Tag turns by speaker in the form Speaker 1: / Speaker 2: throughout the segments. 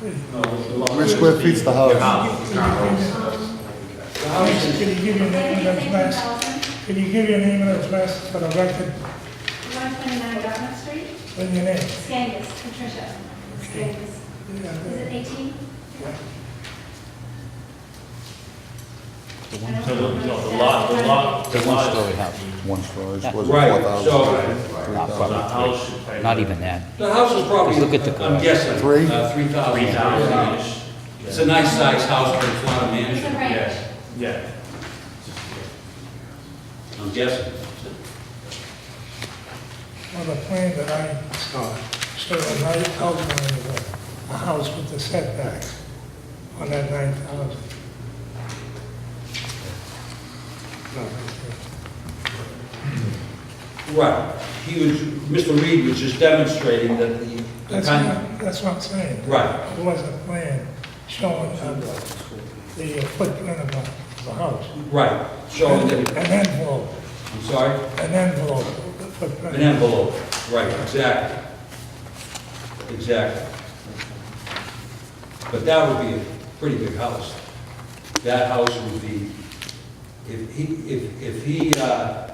Speaker 1: How many square feet's the house?
Speaker 2: Can you give your name and address? Can you give your name and address for the record
Speaker 3: One twenty-nine Dartmouth Street,
Speaker 2: and your name?
Speaker 3: Skangus, Patricia, Skangus. Is it eighteen?
Speaker 4: So the, no, the lot, the lot, the
Speaker 1: It's
Speaker 4: lot
Speaker 1: one
Speaker 4: is-
Speaker 1: story house, one story, was it four
Speaker 5: Right,
Speaker 1: thousand?
Speaker 5: so
Speaker 1: Three
Speaker 6: Not
Speaker 4: The
Speaker 1: thousand?
Speaker 6: quite.
Speaker 4: house is
Speaker 6: Not even that.
Speaker 5: the house is probably,
Speaker 6: Just look at the
Speaker 5: I'm
Speaker 6: garage.
Speaker 5: guessing. uh,
Speaker 1: Three?
Speaker 5: Three thousand.
Speaker 4: Three thousand-ish.
Speaker 5: It's a nice sized house for a lot of
Speaker 3: It's a
Speaker 5: mansion,
Speaker 3: ranch.
Speaker 5: yes,
Speaker 4: Yeah.
Speaker 5: I'm guessing.
Speaker 2: Well, the plan that I saw showed a nice outline of a, a house with the setbacks on that nine thousand.
Speaker 5: Right, he was, Mr. Reed was just demonstrating that the- the
Speaker 2: That's
Speaker 5: kind,
Speaker 2: what, that's what I'm saying.
Speaker 5: right,
Speaker 2: It was a plan showing uh, the footprint of the, of the house.
Speaker 5: right, showing
Speaker 2: An
Speaker 5: that,
Speaker 2: envelope,
Speaker 5: I'm sorry,
Speaker 2: an envelope, the footprint.
Speaker 5: an envelope, right, exactly, exactly. But that would be a pretty big house. That house would be, if he, if, if he, uh,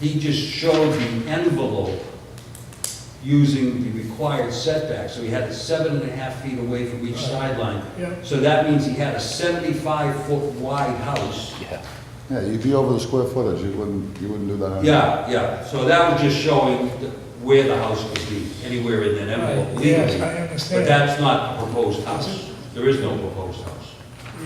Speaker 5: he just showed the envelope using the required setback, so he had it seven and a half feet away from each sideline.
Speaker 2: Yeah.
Speaker 5: So that means he had a seventy-five foot wide house.
Speaker 6: Yeah.
Speaker 1: Yeah, you'd be over the square footage, you wouldn't, you wouldn't do that.
Speaker 5: Yeah, yeah, so that was just showing th- where the house could be, anywhere in that envelope
Speaker 2: Right, yes,
Speaker 5: legally.
Speaker 2: I understand.
Speaker 5: But that's not the proposed house. There is no proposed house.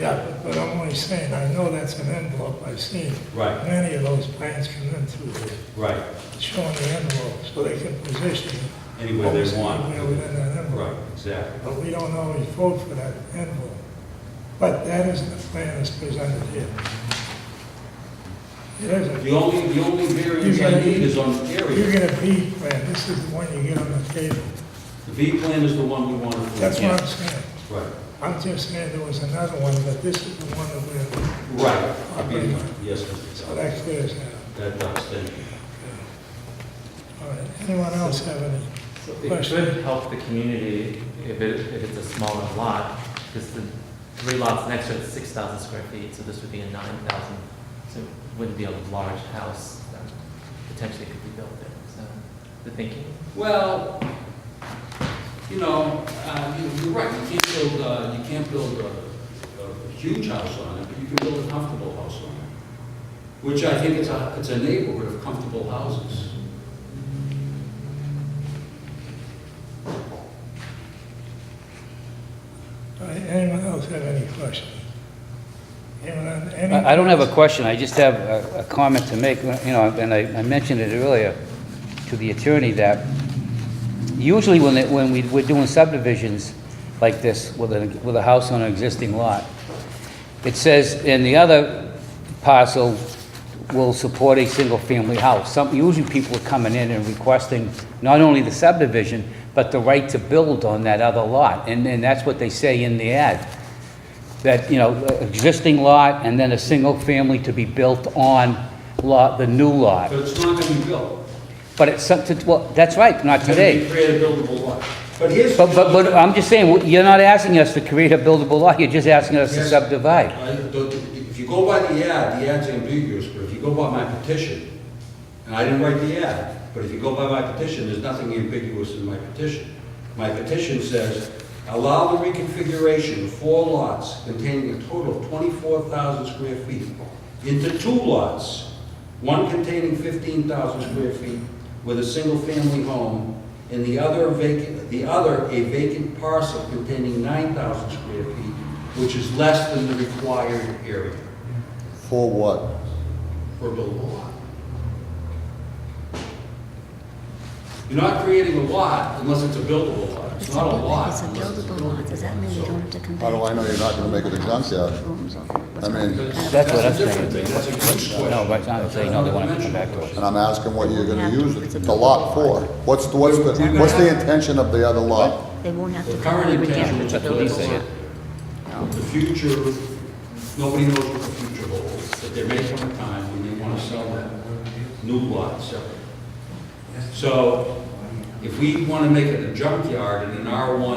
Speaker 2: Yeah, but- but I'm only saying, I know that's an envelope, I've seen
Speaker 5: Right,
Speaker 2: many of those plans come in through there,
Speaker 5: right,
Speaker 2: showing the envelope, so they can position it.
Speaker 5: anywhere they
Speaker 2: obviously, Where
Speaker 5: want.
Speaker 2: within that envelope,
Speaker 5: Right, exactly.
Speaker 2: but we don't always vote for that envelope. But that isn't the plan that's presented here. It isn't.
Speaker 5: The only, the only variance I need is on the
Speaker 2: You
Speaker 5: area.
Speaker 2: get a B plan, this is the one you get on the table,
Speaker 5: The B plan is the one we wanted. to-
Speaker 2: that's what I'm saying.
Speaker 5: Right,
Speaker 2: I'm just saying there was another one, but this is the one that we're,
Speaker 5: right. I mean, Yes, Mr.
Speaker 2: so
Speaker 5: Kelly.
Speaker 2: that clears that up.
Speaker 5: that does, thank you.
Speaker 2: All right, anyone else have any?
Speaker 7: It should help the community if it, if it's a smaller lot, because the three lots next to it is six thousand square feet, so this would be a nine thousand, so it wouldn't be a large house that potentially could be built there, so, the thinking.
Speaker 5: Well, you know, uh, you- you're right, you can't build, uh, you can't build a- a huge house on it, but you can build a comfortable house on it, which I think it's a, it's a neighborhood of comfortable houses.
Speaker 2: All right, anyone else have any questions? Anyone have any?
Speaker 6: I I don't have a question, I just have a a comment to make, you know, and I I mentioned it earlier to the attorney that usually when, it- when we, we're doing subdivisions like this with a, with a house on an existing lot, it says, and the other parcel will support a single-family house. Some, usually people are coming in and requesting not only the subdivision, but the right to build on that other lot. And, and that's what they say in the ad that, you know, existing lot and then a single family to be built on lot, the new lot.
Speaker 5: But it's not gonna be built.
Speaker 6: But it's, some- to- well, that's right, not
Speaker 5: It's gonna be
Speaker 6: today.
Speaker 5: create a buildable lot. But here's.
Speaker 6: But, but, um, but I'm just saying, you're not asking us to create a buildable lot, you're just asking us to
Speaker 5: Yes.
Speaker 6: subdivide.
Speaker 5: I don't- If you go by the ad, the ad's ambiguous, but if you go by my petition, and I didn't write the ad, but if you go by my petition, there's nothing ambiguous in my petition. My petition says, allow the reconfiguration of four lots containing a total of 24,000 square feet into two lots, one containing 15,000 square feet with a single-family home, and the other vacant, the other a vacant parcel containing 9,000 square feet, which is less than the required area
Speaker 1: For what?
Speaker 5: for a buildable lot. You're not creating a lot unless it's a buildable lot. It's not a lot.
Speaker 8: It's a
Speaker 5: unless it's
Speaker 8: buildable lot, does that mean we don't have to come back?
Speaker 1: How do I know you're not gonna make it a junkyard?
Speaker 8: Rooms or-
Speaker 1: I mean,
Speaker 5: That's
Speaker 6: That's what
Speaker 5: a
Speaker 6: I'm saying.
Speaker 5: different thing. That's a use question.
Speaker 6: No, but I'm saying, no, they wanna come back to us.
Speaker 1: and I'm asking what you're gonna use it- the lot for. What's, the- what's the, what's the intention of the other lot?
Speaker 8: They won't have
Speaker 5: The
Speaker 8: to come
Speaker 5: current
Speaker 8: and
Speaker 5: intention
Speaker 8: again
Speaker 5: is
Speaker 8: to
Speaker 5: to
Speaker 6: That's what he
Speaker 5: build
Speaker 8: build
Speaker 6: said.
Speaker 5: The future, nobody knows what the future holds, but there may come a time when they want to sell that new lot separate. So if we want to make it a junkyard in an R1